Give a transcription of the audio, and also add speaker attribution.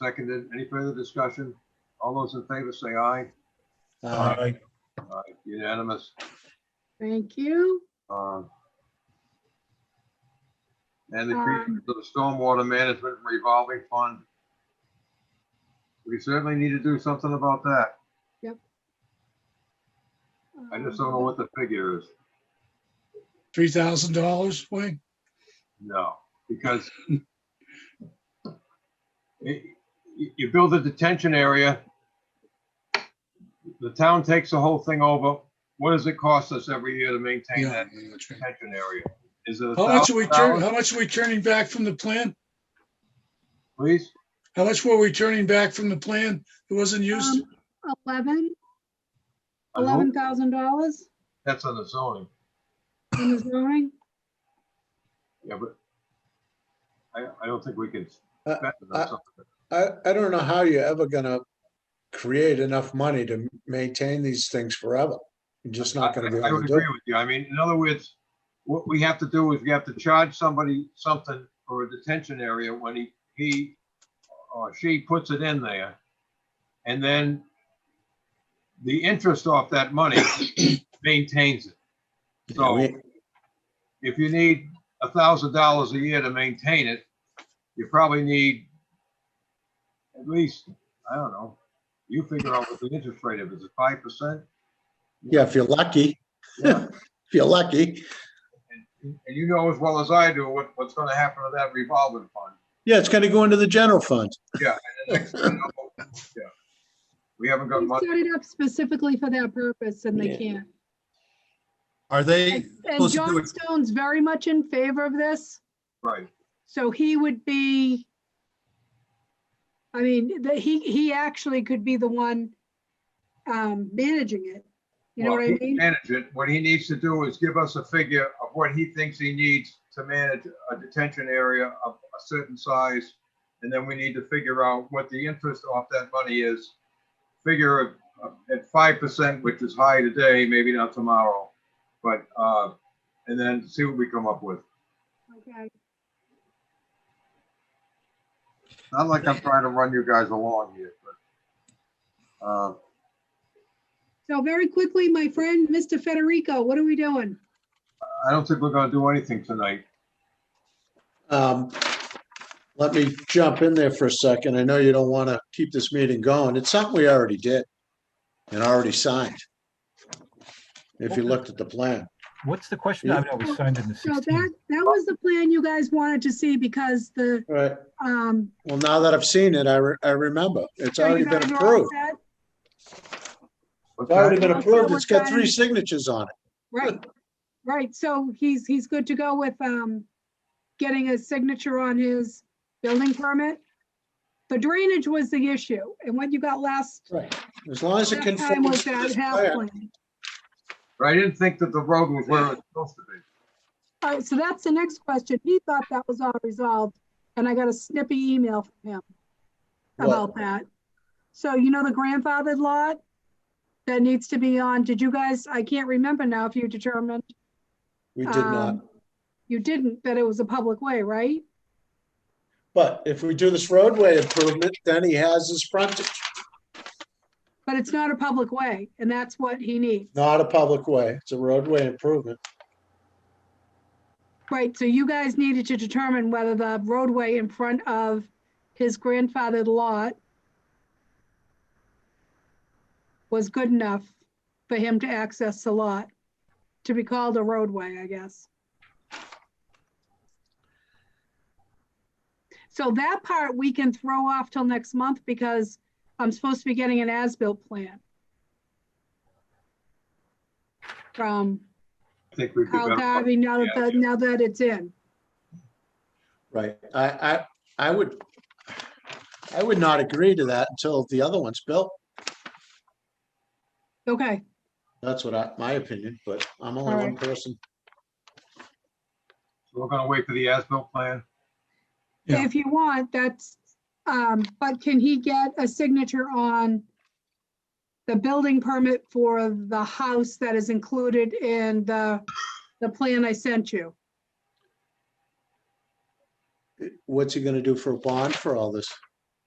Speaker 1: seconded. Any further discussion? All those in favor say aye.
Speaker 2: Uh,
Speaker 3: Uh,
Speaker 4: Aye.
Speaker 1: Aye. Unanimous.
Speaker 5: Thank you.
Speaker 1: Um, And the creation of the stormwater management revolving fund. We certainly need to do something about that. I just don't know
Speaker 5: Um,
Speaker 1: what the figure is.
Speaker 4: Three thousand dollars, Wayne?
Speaker 1: No, because it- you, you build a detention area, the town takes the whole thing over. What does it cost us every year to maintain
Speaker 4: Yeah.
Speaker 1: that
Speaker 4: that's right.
Speaker 1: detention area? Is it a
Speaker 4: How much are we
Speaker 1: thousand
Speaker 4: turning,
Speaker 1: dollars,
Speaker 4: how much are we turning back from the plan?
Speaker 1: Please?
Speaker 4: How much were we turning back from the plan that wasn't
Speaker 5: Um,
Speaker 4: used?
Speaker 5: Eleven,
Speaker 1: I hope
Speaker 5: eleven thousand dollars
Speaker 1: That's on the zoning.
Speaker 5: in the zoning.
Speaker 1: Yeah, but I, I don't think we can
Speaker 2: Uh,
Speaker 1: spend it
Speaker 2: uh,
Speaker 1: on something.
Speaker 2: I, I don't know how you're ever gonna create enough money to maintain these things forever. You're just not gonna be
Speaker 1: I- I
Speaker 2: able
Speaker 1: would
Speaker 2: to do
Speaker 1: agree
Speaker 2: it.
Speaker 1: with you. I mean, in other words, what we have to do is we have to charge somebody something for a detention area when he, he or she puts it in there. And then the interest off that money maintains it. So
Speaker 2: We-
Speaker 1: if you need a thousand dollars a year to maintain it, you probably need at least, I don't know, you figure out what the interest rate is, is it five percent?
Speaker 2: Yeah, if you're lucky,
Speaker 1: Yeah.
Speaker 2: if you're lucky.
Speaker 1: And and you know as well as I do what, what's gonna happen to that revolving fund.
Speaker 2: Yeah, it's gonna go into the general fund.
Speaker 1: The next thing you know, yeah, We haven't got
Speaker 5: We
Speaker 1: much,
Speaker 5: set it up specifically for that purpose and they
Speaker 2: Yeah.
Speaker 5: can't.
Speaker 6: Are they,
Speaker 5: And and
Speaker 6: supposed to do
Speaker 5: John
Speaker 6: it-
Speaker 5: Stone's very much in favor of this,
Speaker 1: right,
Speaker 5: so he would be. I mean, that he, he actually could be the one um, managing it. You know
Speaker 1: Well,
Speaker 5: what
Speaker 1: he
Speaker 5: I
Speaker 1: can
Speaker 5: mean?
Speaker 1: Manage it. What he needs to do is give us a figure of what he thinks he needs to manage a detention area of a certain size. And then we need to figure out what the interest off that money is. Figure it, uh, at five percent, which is high today, maybe not tomorrow. But, uh, and then see what we come up with.
Speaker 5: Okay.
Speaker 1: Not like I'm trying to run you guys along here, but. uh,
Speaker 5: So very quickly, my friend, Mr. Federico, what are we doing?
Speaker 1: I don't think we're gonna do anything tonight.
Speaker 2: Um, let me jump in there for a second. I know you don't want to keep this meeting going. It's something we already did and already signed. If you looked at the plan,
Speaker 3: What's the question? I know we signed in the
Speaker 5: So
Speaker 3: 16th.
Speaker 5: that, that was the plan you guys wanted to see because the,
Speaker 2: All right?
Speaker 5: um.
Speaker 2: Well, now that I've seen it, I, re- I remember. It's already
Speaker 5: you
Speaker 2: been
Speaker 5: guys are all
Speaker 2: approved.
Speaker 5: set?
Speaker 2: It's already been
Speaker 5: Okay.
Speaker 2: approved. It's got three signatures on it.
Speaker 5: Right, right. So he's, he's good to go with, um, getting a signature on his building permit. The drainage was the issue and what you got last,
Speaker 2: Right. As long as it
Speaker 5: last time
Speaker 2: conforms
Speaker 5: was
Speaker 2: to
Speaker 5: that
Speaker 2: this
Speaker 5: half
Speaker 2: plan.
Speaker 5: plan.
Speaker 1: But I didn't think that the road was where it's supposed to be.
Speaker 5: All right, so that's the next question. He thought that was all resolved, and I got a snippy email from him
Speaker 2: What?
Speaker 5: about that. So you know the grandfathered lot that needs to be on, did you guys, I can't remember now if you determined,
Speaker 2: We did not.
Speaker 5: Um, you didn't, that it was a public way, right?
Speaker 2: But if we do this roadway improvement, then he has his frontage,
Speaker 5: But it's not a public way, and that's what he needs.
Speaker 2: not a public way. It's a roadway improvement.
Speaker 5: Right, so you guys needed to determine whether the roadway in front of his grandfathered lot was good enough for him to access the lot, to be called a roadway, I guess. So that part we can throw off till next month because I'm supposed to be getting an as-built plan from
Speaker 1: I think we'd be
Speaker 5: Carl
Speaker 1: better. off-
Speaker 5: Garvey now that,
Speaker 1: Yeah,
Speaker 5: the- now that it's in.
Speaker 2: Right. I, I, I would, I would not agree to that until the other one's built.
Speaker 5: Okay,
Speaker 2: That's what I, my opinion, but I'm only one person.
Speaker 1: So We're gonna wait for the as-built plan.
Speaker 4: Yeah.
Speaker 5: if you want, that's, um, but can he get a signature on the building permit for the house that is included in the, the plan I sent you?
Speaker 2: What's he gonna do for a bond for all this?